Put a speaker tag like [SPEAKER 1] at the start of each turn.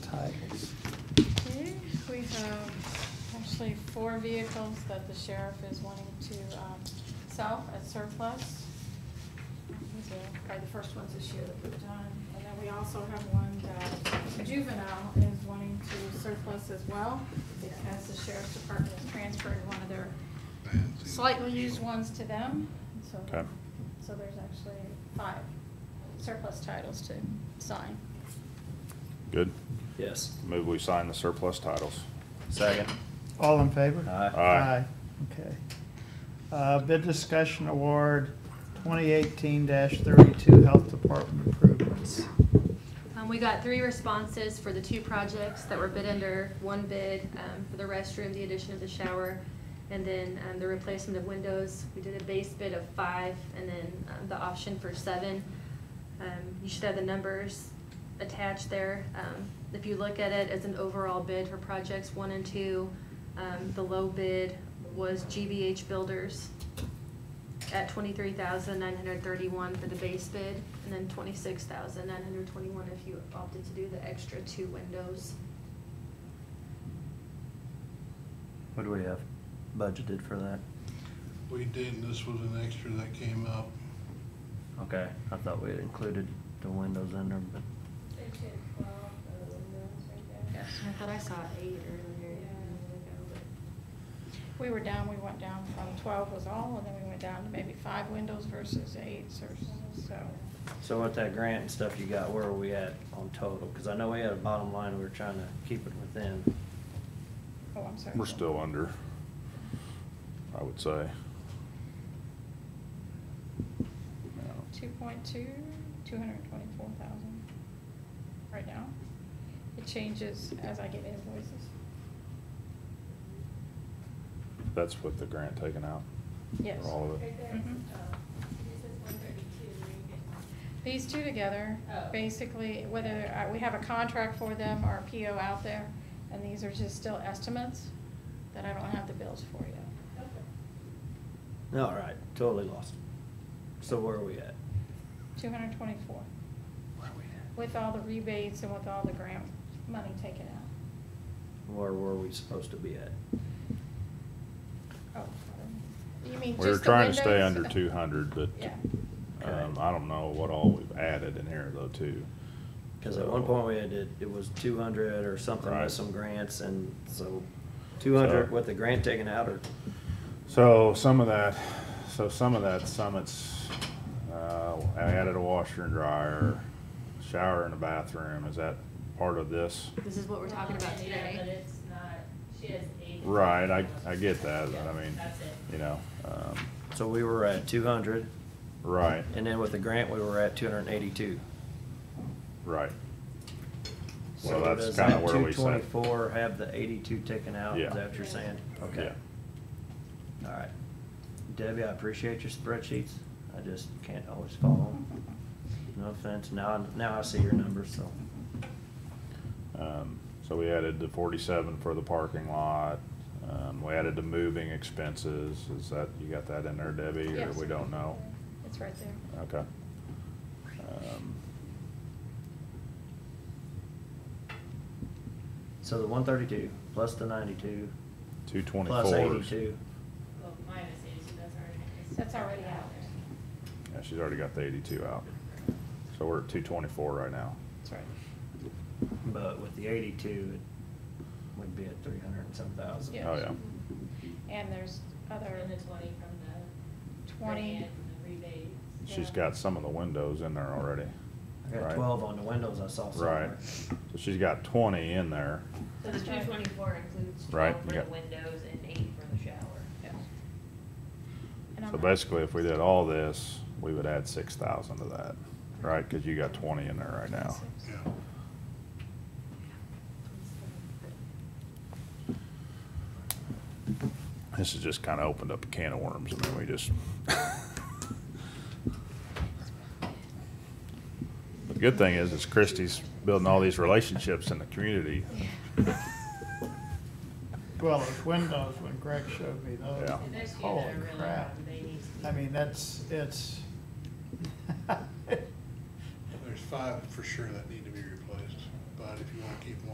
[SPEAKER 1] tied.
[SPEAKER 2] Okay, we have actually four vehicles that the sheriff is wanting to um, sell as surplus. These are Probably the first ones this year that we've done. And then we also have one that juvenile is wanting to surplus as well because the sheriff's department has transferred one of their slightly used ones to them. So,
[SPEAKER 3] Okay.
[SPEAKER 2] so there's actually five surplus titles to sign.
[SPEAKER 3] Good.
[SPEAKER 4] Yes.
[SPEAKER 3] Move we sign the surplus titles.
[SPEAKER 4] Second.
[SPEAKER 1] All in favor?
[SPEAKER 4] Aye.
[SPEAKER 3] Aye.
[SPEAKER 1] Okay. Uh, Bid discussion award 2018-32 Health Department improvements.
[SPEAKER 5] Um, we got three responses for the two projects that were bid under, one bid, um, for the restroom, the addition of the shower, and then, um, the replacement of windows. We did a base bid of five, and then, um, the option for seven. Um, you should have the numbers attached there. Um, if you look at it as an overall bid for projects one and two, um, the low bid was GBH Builders at twenty-three thousand nine hundred thirty-one for the base bid, and then twenty-six thousand nine hundred twenty-one if you opted to do the extra two windows.
[SPEAKER 4] What do we have budgeted for that?
[SPEAKER 6] We did, this was an extra that came up.
[SPEAKER 4] Okay, I thought we had included the windows in there, but.
[SPEAKER 5] I thought I saw eight earlier.
[SPEAKER 2] We were down, we went down from twelve was all, and then we went down to maybe five windows versus eight, or so.
[SPEAKER 4] So with that grant and stuff you got, where are we at on total? Cause I know we had a bottom line, we were trying to keep it within.
[SPEAKER 2] Oh, I'm sorry.
[SPEAKER 3] We're still under, I would say.
[SPEAKER 2] Two point two, two hundred and twenty-four thousand, right now. It changes as I get invoices.
[SPEAKER 3] That's with the grant taken out?
[SPEAKER 2] Yes.
[SPEAKER 3] For all of it?
[SPEAKER 7] Mm-hmm.
[SPEAKER 2] Mhm. These two together, basically, whether, uh, we have a contract for them or a PO out there, and these are just still estimates that I don't have the bills for yet.
[SPEAKER 4] All right, totally lost. So where are we at?
[SPEAKER 2] Two hundred and twenty-four.
[SPEAKER 4] Where are we at?
[SPEAKER 2] with all the rebates and with all the grant money taken out.
[SPEAKER 4] Where were we supposed to be at?
[SPEAKER 2] Oh, You mean
[SPEAKER 3] We were
[SPEAKER 2] just the
[SPEAKER 3] trying to stay
[SPEAKER 2] windows?
[SPEAKER 3] under two hundred, but,
[SPEAKER 2] Yeah,
[SPEAKER 3] um, I don't know what all we've added in here though, too.
[SPEAKER 4] Cause at one point we had, it, it was two hundred or something
[SPEAKER 3] Right.
[SPEAKER 4] with some grants and so two hundred
[SPEAKER 3] So-
[SPEAKER 4] with the grant taken out or?
[SPEAKER 3] So some of that, so some of that Summit's, uh, I added a washer and dryer, shower and a bathroom, is that part of this?
[SPEAKER 5] This is what we're talking about
[SPEAKER 7] Yeah, But
[SPEAKER 5] today.
[SPEAKER 7] it's not, she has eight.
[SPEAKER 3] Right, I, I get that, but I
[SPEAKER 7] Yeah,
[SPEAKER 3] mean,
[SPEAKER 7] That's it.
[SPEAKER 3] you know, um,
[SPEAKER 4] So we were at two hundred,
[SPEAKER 3] right,
[SPEAKER 4] and then with the grant, we were at two hundred and eighty-two.
[SPEAKER 3] right. Well, that's kinda where we
[SPEAKER 4] Two
[SPEAKER 3] sat.
[SPEAKER 4] twenty-four, have the eighty-two taken out,
[SPEAKER 3] Yeah.
[SPEAKER 4] is that what you're saying? Okay, all right. Debbie, I appreciate your spreadsheets, I just can't always follow them. No offense, now, now I see your numbers, so.
[SPEAKER 3] Um, So we added the forty-seven for the parking lot, um, we added the moving expenses, is that, you got that in there Debbie, or
[SPEAKER 2] Yes.
[SPEAKER 3] we don't know?
[SPEAKER 2] it's right there.
[SPEAKER 3] Okay. Um,
[SPEAKER 4] So the one thirty-two, plus the ninety-two,
[SPEAKER 3] Two twenty-four.
[SPEAKER 4] plus eighty-two.
[SPEAKER 7] Well, minus eight, so that's already.
[SPEAKER 2] That's already out.
[SPEAKER 3] Yeah, she's already got the eighty-two out. So we're at two twenty-four right now.
[SPEAKER 2] That's right.
[SPEAKER 4] But with the eighty-two, it would be at three hundred and some thousand.
[SPEAKER 2] Yes.
[SPEAKER 3] Oh, yeah.
[SPEAKER 2] And there's other
[SPEAKER 7] And the twenty from the.
[SPEAKER 2] twenty,
[SPEAKER 7] grant and the Rebates.
[SPEAKER 3] She's
[SPEAKER 2] Yeah.
[SPEAKER 3] got some of the windows in there already.
[SPEAKER 4] I got
[SPEAKER 3] right?
[SPEAKER 4] twelve on the windows I saw somewhere.
[SPEAKER 3] Right. So she's got twenty in there.
[SPEAKER 7] So the two twenty-four includes
[SPEAKER 3] Right,
[SPEAKER 7] twelve
[SPEAKER 3] you
[SPEAKER 7] for the
[SPEAKER 3] got-
[SPEAKER 7] windows and eight for the shower.
[SPEAKER 2] yeah. And I'm
[SPEAKER 3] So
[SPEAKER 2] not-
[SPEAKER 3] basically, if we did all this, we would add six thousand to that, right? Cause you got twenty in there right now.
[SPEAKER 6] Yeah.
[SPEAKER 3] This has just kinda opened up a can of worms. I mean, we just. But the good thing is, is Christie's building all these relationships in the community.
[SPEAKER 1] Well, it's windows when Greg showed me those.
[SPEAKER 3] Yeah.
[SPEAKER 7] And those few that
[SPEAKER 1] Holy
[SPEAKER 7] are really
[SPEAKER 1] crap.
[SPEAKER 7] out, they need to be-
[SPEAKER 1] I mean, that's, it's.
[SPEAKER 6] There's five for sure that need to be replaced, but if you wanna keep one.